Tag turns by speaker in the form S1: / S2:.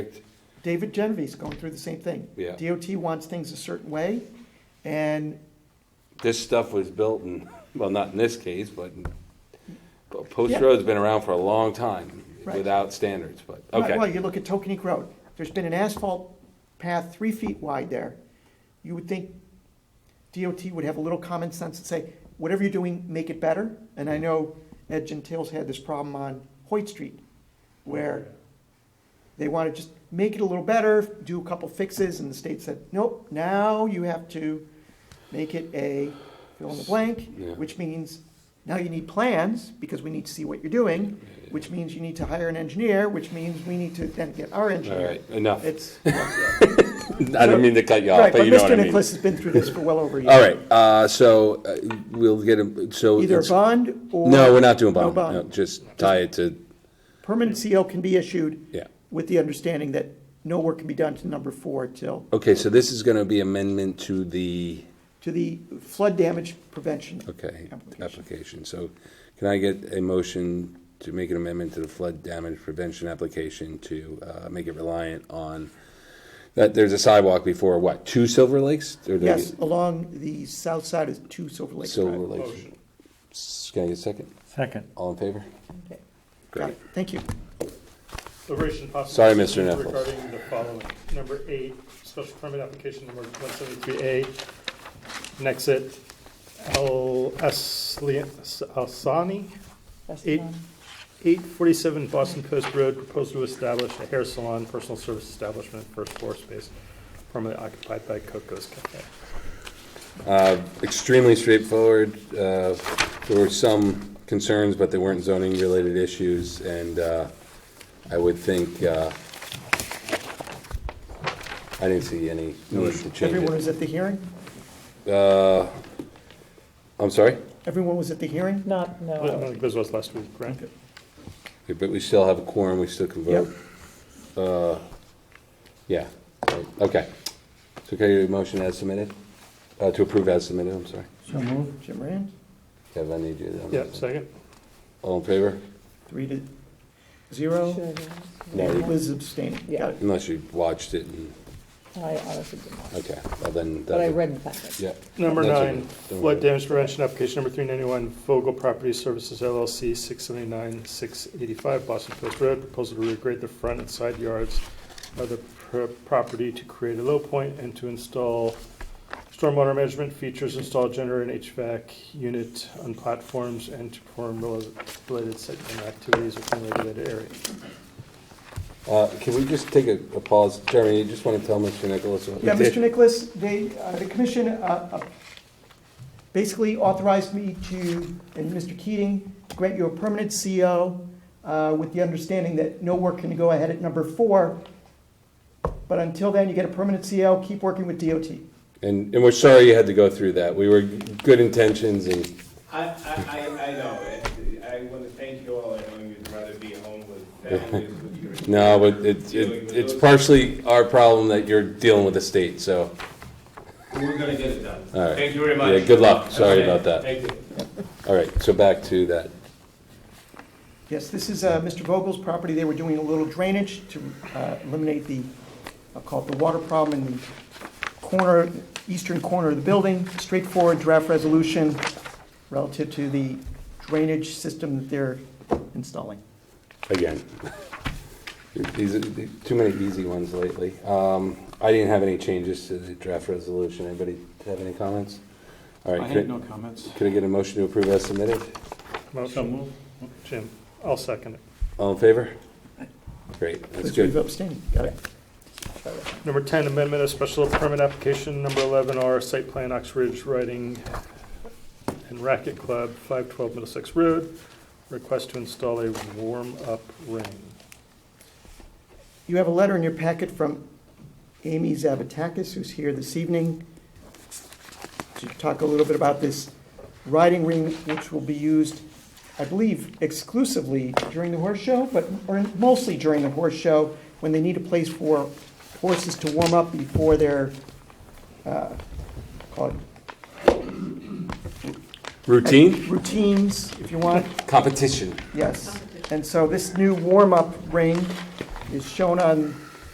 S1: David Genevieve's going through the same thing.
S2: Yeah.
S1: DOT wants things a certain way, and
S2: This stuff was built in, well, not in this case, but, but Post
S1: Yeah.
S2: Road's been around for a long time
S1: Right.
S2: without standards, but,
S1: Right, Well,
S2: okay.
S1: you look at Tokenique Road, there's been an asphalt path three feet wide there. You would think DOT would have a little common sense and say, whatever you're doing, make it better. And I know Ed Gentile's had this problem on Hoyt Street, where they want to just make it a little better, do a couple fixes, and the state said, nope, now you have to make it a fill in the blank,
S2: Yeah.
S1: which means now you need plans, because we need to see what you're doing, which means you need to hire an engineer, which means we need to then get our
S2: All
S1: engineer.
S2: right, enough. I
S1: It's,
S2: didn't mean to cut you off,
S1: right,
S2: but
S1: but
S2: you know what I
S1: Mr.
S2: mean.
S1: Nicholas has been through this for well over a year.
S2: All right, uh, so uh, we'll get him, so.
S1: Either a
S2: it's-
S1: bond or.
S2: No, we're not doing bond.
S1: bond.
S2: No, Just tie it to,
S1: Permanent CO can be issued
S2: yeah.
S1: with the understanding that no work can be done to number four till,
S2: Okay, so this is gonna be amendment to the,
S1: to the flood damage prevention.
S2: okay,
S1: Application.
S2: application. So can I get a motion to make an amendment to the flood damage prevention application to uh, make it reliant on, that there's a sidewalk before, what, two Silver Lakes? Or do I
S1: Yes,
S2: get-
S1: along the south side of Two Silver Lake
S2: Silver
S1: Drive.
S2: Lakes. S- Can I get a second?
S3: Second.
S2: All in favor?
S1: Got it, thank you.
S4: Deliberation and possible
S2: Sorry, Mr.
S4: decision
S2: Nichols.
S4: Regarding the following, number eight, special permit application number one seventy-three A, Nexit Al Asli- Asani, eight, eight forty-seven Boston Post Road, proposed to establish a hair salon, personal service establishment, first floor space, formerly occupied by Coco's Cafe.
S2: extremely straightforward. Uh, There were some concerns, but they weren't zoning-related issues, and uh, I would think, uh, I didn't see any need to change
S1: Everyone
S2: it.
S1: was at the hearing?
S2: Uh, I'm sorry,
S1: Everyone was at the hearing?
S3: Not,
S4: I don't
S3: no.
S4: think this was last week, right?
S2: Okay, but we still have a quorum, we still can vote. Uh, Yeah, right, okay. So can I get a motion as submitted? Uh, To approve as submitted, I'm sorry.
S3: So moved.
S1: Jim Rand,
S2: Kevin, I need you. on
S4: Yeah,
S2: that.
S4: second.
S2: All in favor?
S1: three to zero.
S2: No, you-
S1: Liz abstaining. Got it.
S2: Unless you watched it and
S3: I honestly did not.
S2: Okay, well then.
S3: But I
S2: that-
S3: read the packet.
S2: Yeah.
S4: Number
S2: That's
S4: nine,
S2: okay. Don't
S4: flood
S2: worry.
S4: damage prevention application number three ninety-one, Vogel Property Services LLC, six seventy-nine, six eighty-five Boston Post Road, proposal to regrade the front and side yards of the pro- property to create a low point and to install stormwater management features, install generator and HVAC unit on platforms, and to perform rela- related site activities within regulated area.
S2: Uh, Can we just take a a pause? Jeremy, you just want to tell Mr. Nicholas? what we
S1: Yeah,
S2: did?
S1: Mr. Nicholas, they, uh, the commission uh, uh, basically authorized me to, and Mr. Keating, to grant you a permanent CO uh, with the understanding that no work can go ahead at number four. But until then, you get a permanent CO, keep working with DOT.
S2: And, and we're sorry you had to go through that. We were good intentions and,
S5: I, I, I- I know, it. I want to thank you all, I know you'd rather be home with families with your.
S2: no, but it's, it- it's partially our problem that you're dealing with the state, so.
S5: We're gonna get it done.
S2: All right.
S5: Thank you very much.
S2: Yeah, good luck. Sorry
S5: Okay,
S2: about that.
S5: Thank you.
S2: All right, so back to that.
S1: Yes, this is uh, Mr. Vogel's property. They were doing a little drainage to uh, eliminate the, I'll call it the water problem in the corner, eastern corner of the building. Straightforward draft resolution relative to the drainage system that they're installing.
S2: again. These are the- too many easy ones lately. Um, I didn't have any changes to the draft resolution. Anybody have any comments? All right.
S6: I
S2: could
S6: have no comments.
S2: Could I get a motion to approve as submitted?
S4: Motion, Jim, I'll second it.
S2: All in favor? Great, that's
S1: Please leave
S2: good.
S1: abstaining. Got it.
S4: Number 10, amendment of special permit application number 11R, site plan Ox Ridge Riding and Racket Club, 512 Middlesex Road, request to install a warm-up ring.
S1: You have a letter in your packet from Amy Zavatakis, who's here this evening, to talk a little bit about this riding ring, which will be used, I believe, exclusively during the horse show, but, or mostly during the horse show, when they need a place for horses to warm up before their, uh, call it
S2: Routine?
S1: routines, if you want.
S2: Competition.
S1: Yes, and so this new warm-up ring is shown on